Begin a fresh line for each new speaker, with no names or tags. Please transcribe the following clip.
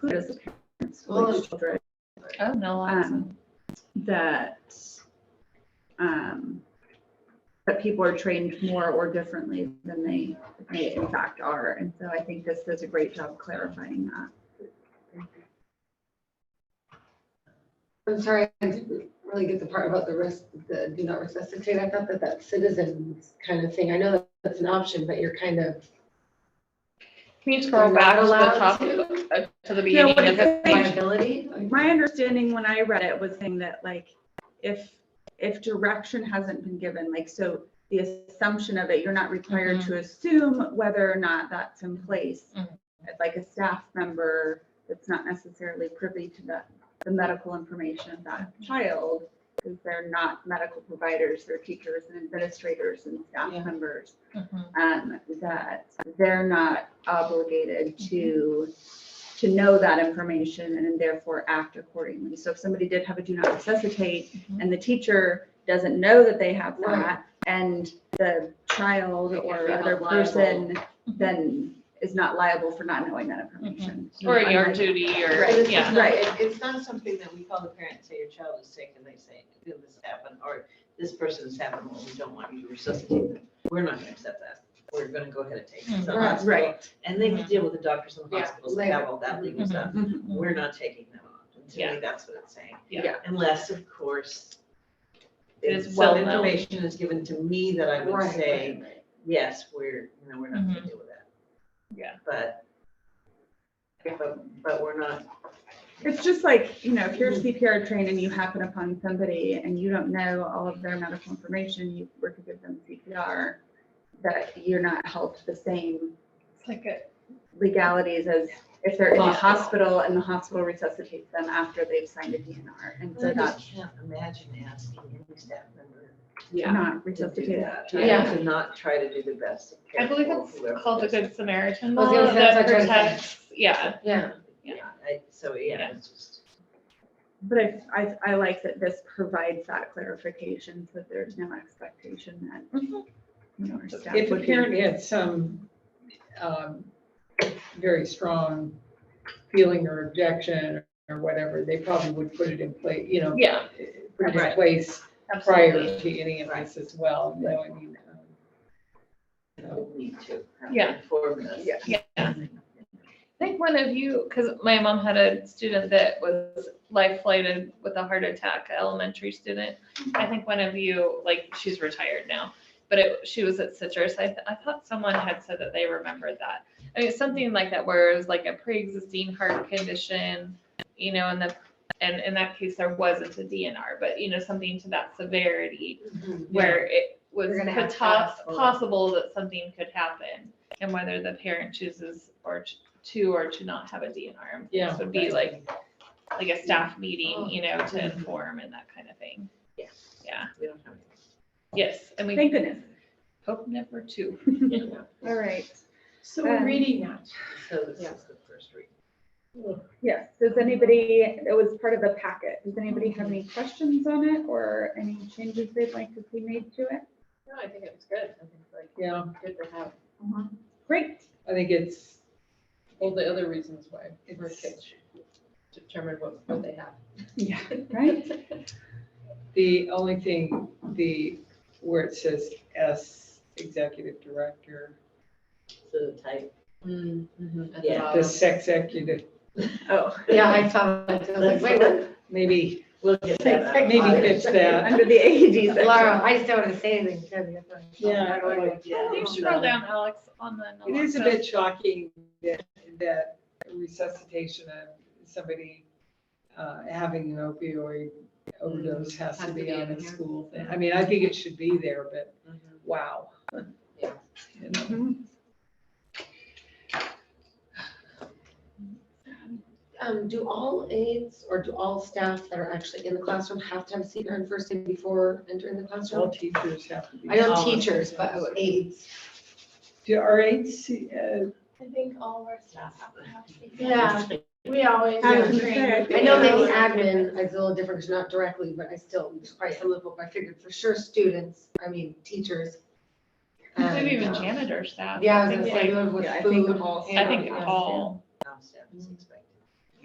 put as parents with children
Oh, no, I
Um, that um, that people are trained more or differently than they they in fact are. And so I think this does a great job clarifying that.
I'm sorry, I didn't really get the part about the rest, the do not resuscitate. I thought that that citizens kind of thing, I know that that's an option, but you're kind of.
Can you scroll back to the
allowed
top,
to-
uh, to the
No,
beginning?
what
of
it
the-
says-
Liability? Like,
My understanding when I read it was saying that like if if direction hasn't been given, like so the assumption of it, you're not required to assume whether or not that's in place.
Mhm.
It's Like a staff member that's not necessarily privy to that the medical information of that child, because they're not medical providers, they're teachers and administrators and staff
Yeah.
members
Mhm.
um, that they're not obligated to, to know that information and therefore act accordingly. So if somebody did have a do not resuscitate and the teacher doesn't know that they have
Mm-hmm. Right.
that and the child
They can't
or
be
other
held Mm-hmm.
person then is not liable for not knowing that information.
Or in your
Unlike-
duty or,
Right.
yeah.
Right.
It- It's not something that we call the parent and say your child is sick and they say, "Did this happen?" or this person's happened, well, we don't want you to resuscitate them. We're not gonna accept that. We're gonna go ahead and take them to the
Right,
hospital.
Right.
And they can deal with the doctors and the
Yeah,
hospitals that have
later.
all that legal stuff.
Mm-hmm.
Mhm.
We're not taking them on. To
Yeah.
me, that's what it's saying.
Yeah.
Yeah.
Unless, of course,
It
if
is well
some
known.
information is given to me that I would
Right.
say, yes, we're, you know, we're not gonna deal with that.
Yeah.
But, but, but we're not
It's just like, you know, if you're CPR trained and you happen upon somebody and you don't know all of their medical information, you were to give them CPR, that you're not held to the same
It's like a-
legalities as if they're in the
Hospital.
hospital and the hospital resuscitates them after they've signed a DNR. And so
I
that's
just can't imagine asking any staff member
Yeah.
not
to do
resuscitated.
that.
Yeah.
To not try to do the best. to care
I believe
for whoever
it's called the
does it.
Good Samaritan
I was gonna
law
say, that's
that
what I was gonna
protects, yeah.
Yeah,
Yeah, I- So, yeah, it's just,
But I, I, I like that this provides that clarification, so there's no expectation that,
Mm-hmm.
you know, our staff
If a
would be.
parent had some um, very strong feeling or objection or whatever, they probably would put it in place, you know,
Yeah,
put it in
Right.
place
absolutely.
prior to any of this as well, you know, I mean. um,
you know, we need to. have
Yeah.
Inform us.
Yeah.
Yeah. I think one of you, because my mom had a student that was life flighted with a heart attack, a elementary student. I think one of you, like, she's retired now, but it, she was at Citrus. I, th- I thought someone had said that they remembered that. I mean, something like that, where it was like a pre-existing heart condition, you know, and the, and in that case, there wasn't a DNR, but you know, something to that severity
Mm-hmm.
where it was
We're gonna have to
potas-
ask for it.
possible that something could happen and whether the parent chooses or t- to or to not have a DNR. This
Yeah.
would be like, like a staff
Oh.
meeting, you know, to inform and that kind of thing.
Yeah.
Yeah,
We don't have.
yes, and we
Thank goodness.
hope never to.
Yeah.
All right.
So we're
Um,
reading that.
So this
Yeah.
is the first read.
Yes, does anybody, it was part of the packet, does anybody have any questions on it or any changes they'd like to see made to it?
No, I think it was good. I think it's
Yeah,
like good to have
Great,
I think it's,
all the other reasons why we're
it's,
determined what, what they have.
right?
the only thing, the, where it says S, executive director,
So the type.
At the
Yeah.
the
bottom.
sex executive,
Oh,
Mm-hmm. yeah, I saw that. I was like, wait, what?
maybe,
We'll get that. out.
maybe fix that.
under the AED section.
Laura, I just don't want to say anything. 'cause that's what I'm-
Yeah, I like
Yeah.
You scroll down, Alex, on the.
It is a bit shocking that, that resuscitation of somebody uh, having an opioid overdose has to be on
in
a
here.
school thing. I mean, I think it should be there, but
Mhm.
wow.
Yeah.
You know,
Um, do all aides or do all staff that are actually in the classroom have to have CPR and first aid before entering the
All
classroom?
teachers have to be.
I know teachers, but aides.
Do our aides, uh,
I think all of our staff have to have safety.
Yeah,
We always.
I was gonna
train
say, I think-
I know maybe admin is a little different, 'cause not directly, but I still, there's probably some level, but I figured for sure students, I mean, teachers. and,
Maybe even
um,
janitor staff.
Yeah, I was
think
gonna say,
like-
with
Yeah, I think
food.
all
I think all,
Staff is expected.